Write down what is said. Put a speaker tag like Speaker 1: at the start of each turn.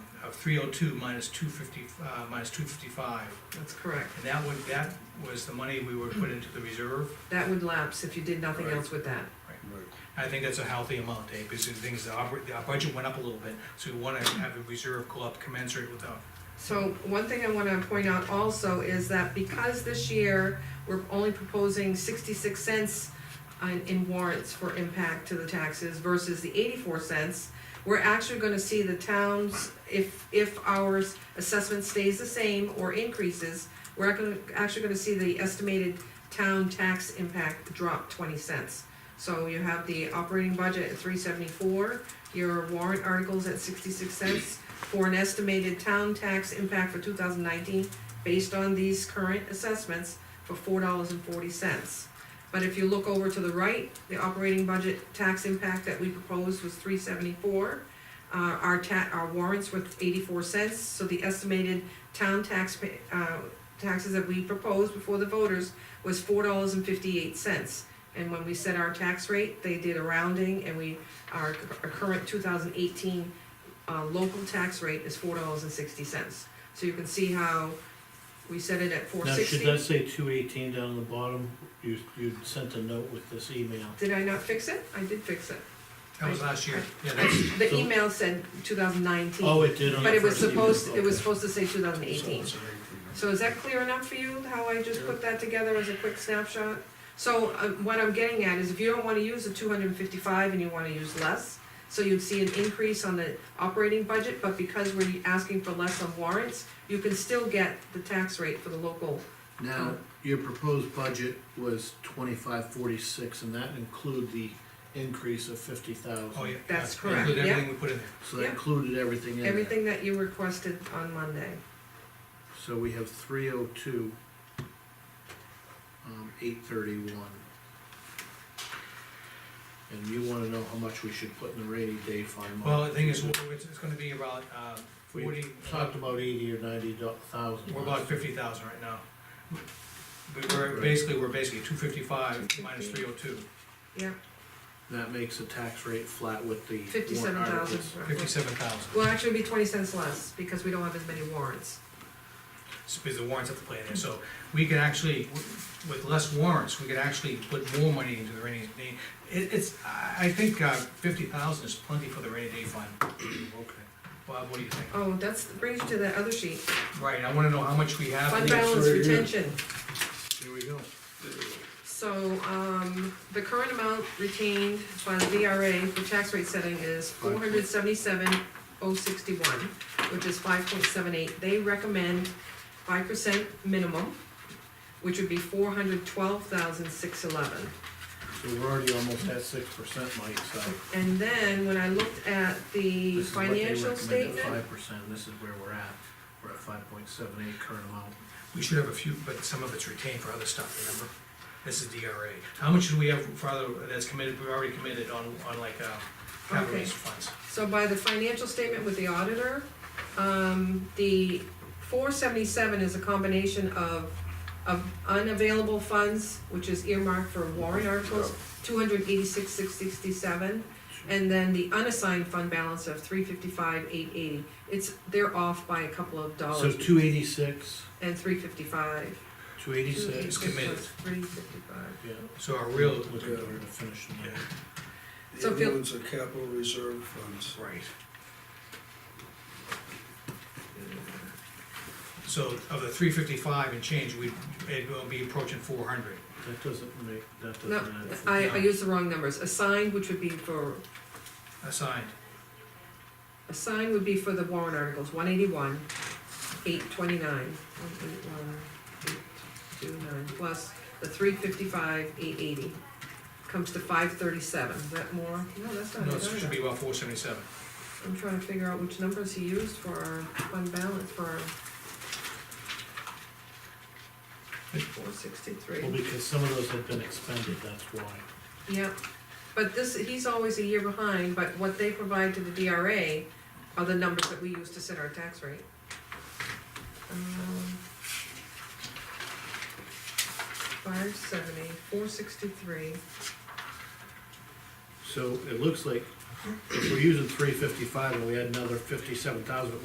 Speaker 1: three oh two minus two fifty, uh, minus two fifty-five.
Speaker 2: That's correct.
Speaker 1: And that would, that was the money we would put into the reserve.
Speaker 2: That would lapse if you did nothing
Speaker 1: Right.
Speaker 2: else with that.
Speaker 1: I think that's a healthy amount, Dave, because the things, the oper- our budget went up a little bit, so we wanna have a reserve go up commensurate with our
Speaker 2: So one thing I wanna point out also is that because this year, we're only proposing sixty-six cents in, in warrants for impact to the taxes versus the eighty-four cents, we're actually gonna see the towns, if, if our assessment stays the same or increases, we're gonna, actually gonna see the estimated town tax impact drop twenty cents. So you have the operating budget at three seventy-four, your warrant articles at sixty-six cents, for an estimated town tax impact for two thousand nineteen, based on these current assessments, for four dollars and forty cents. But if you look over to the right, the operating budget tax impact that we proposed was three seventy-four. Uh, our ta, our warrants were eighty-four cents, so the estimated town tax, pa- uh, taxes that we proposed before the voters was four dollars and fifty-eight cents. And when we set our tax rate, they did a rounding, and we, our, our current two thousand eighteen uh, local tax rate is four dollars and sixty cents. So you can see how we set it at four
Speaker 3: Now, should
Speaker 2: sixty.
Speaker 3: that say two eighteen down the bottom? You, you sent a note with this email.
Speaker 2: Did I not fix it? I did fix it.
Speaker 1: That was last year, yeah, that's,
Speaker 2: The
Speaker 3: So-
Speaker 2: email said two thousand
Speaker 3: Oh,
Speaker 2: nineteen,
Speaker 3: it did on the
Speaker 2: but it was
Speaker 3: first email.
Speaker 2: supposed, it was
Speaker 3: Okay.
Speaker 2: supposed to say two thousand eighteen. So is that clear enough for you, how I just put that together as a quick snapshot? So, uh, what I'm getting at is if you don't wanna use the two hundred and fifty-five and you wanna use less, so you'd see an increase on the operating budget, but because we're asking for less on warrants, you can still get the tax rate for the local
Speaker 3: Now, your proposed budget was twenty-five forty-six, and that include the increase of fifty thousand.
Speaker 1: oh, yeah.
Speaker 2: That's
Speaker 1: yeah,
Speaker 2: correct,
Speaker 1: Include
Speaker 2: yeah.
Speaker 1: everything we put in there.
Speaker 3: So that
Speaker 2: Yeah.
Speaker 3: included everything in there.
Speaker 2: Everything that you requested on Monday,
Speaker 3: So we have three oh two, um, eight thirty-one. And you wanna know how much we should put in the rainy day fund?
Speaker 1: Well, the thing is, we're- it's, it's gonna be about, uh,
Speaker 3: We
Speaker 1: forty,
Speaker 3: talked about eighty or ninety do- thousand.
Speaker 1: we're about fifty thousand right now. But we're,
Speaker 3: Right.
Speaker 1: basically, we're basically two fifty-five minus three oh two,
Speaker 2: yeah,
Speaker 3: That makes the tax rate flat with the warrant
Speaker 2: fifty-seven thousand.
Speaker 3: articles.
Speaker 1: fifty-seven thousand,
Speaker 2: Well, actually, it'd be twenty cents less, because we don't have as many warrants.
Speaker 1: because the warrants have to play in there, so we could actually, with less warrants, we could actually put more money into the rainy day. It, it's, I, I think, uh, fifty thousand is plenty for the rainy day fund. Okay. Bob, what do you think?
Speaker 2: Oh, that's, brings you to that other sheet,
Speaker 1: Right, I wanna know how much we have.
Speaker 2: fund
Speaker 1: in-
Speaker 2: balance
Speaker 3: right here.
Speaker 2: retention.
Speaker 3: Here we go.
Speaker 2: So, um, the current amount retained by the VRA for tax rate setting is four hundred seventy-seven oh sixty-one, which is five point seven eight. They recommend five percent minimum, which would be four hundred twelve thousand six eleven.
Speaker 3: So we're already almost at six percent, Mike, so.
Speaker 2: And then when I looked at the
Speaker 3: this is what they
Speaker 2: financial
Speaker 3: recommend at
Speaker 2: statement,
Speaker 3: Five percent, this is where we're at. We're at five point seven eight current amount.
Speaker 1: We should have a few, but some of it's retained for other stuff, remember? This is DRA. How much should we have for other, that's committed, we already committed on, on like, uh, capital
Speaker 2: Okay.
Speaker 1: raise funds?
Speaker 2: so by the financial statement with the auditor, um, the four seventy-seven is a combination of, of unavailable funds, which is earmarked for warrant articles, two hundred eighty-six, six sixty-seven, and then the unassigned fund balance of three fifty-five, eight eighty. It's, they're off by a couple of
Speaker 3: So
Speaker 2: dollars
Speaker 3: two eighty-six,
Speaker 2: and three fifty-five.
Speaker 3: two eighty-six,
Speaker 1: It's committed.
Speaker 2: Three fifty-five.
Speaker 3: yeah.
Speaker 1: So our real,
Speaker 3: Look at where to finish the night.
Speaker 2: So
Speaker 4: The
Speaker 2: if you-
Speaker 4: other ones are capital reserve funds.
Speaker 1: right. So of the three fifty-five and change, we, it will be approaching four hundred.
Speaker 3: That doesn't make, that doesn't
Speaker 2: No,
Speaker 3: add.
Speaker 2: I, I
Speaker 3: no.
Speaker 2: used the wrong numbers. Assigned, which would be for,
Speaker 1: Assigned,
Speaker 2: assigned would be for the warrant articles, one eighty-one, eight twenty-nine, one eighty-one, eight two nine, plus the three fifty-five, eight eighty. Comes to five thirty-seven. Is that more? No, that's not
Speaker 1: no,
Speaker 2: it
Speaker 1: it should
Speaker 2: either.
Speaker 1: be about four seventy-seven.
Speaker 2: I'm trying to figure out which numbers he used for our fund balance for our. Four sixty-three.
Speaker 3: Well, because some of those have been expended, that's why.
Speaker 2: Yeah, but this, he's always a year behind, but what they provide to the DRA are the numbers that we use to set our tax rate. Um, Five seventy, four sixty-three,
Speaker 3: So it looks like if we're using three fifty-five and we had another fifty-seven thousand,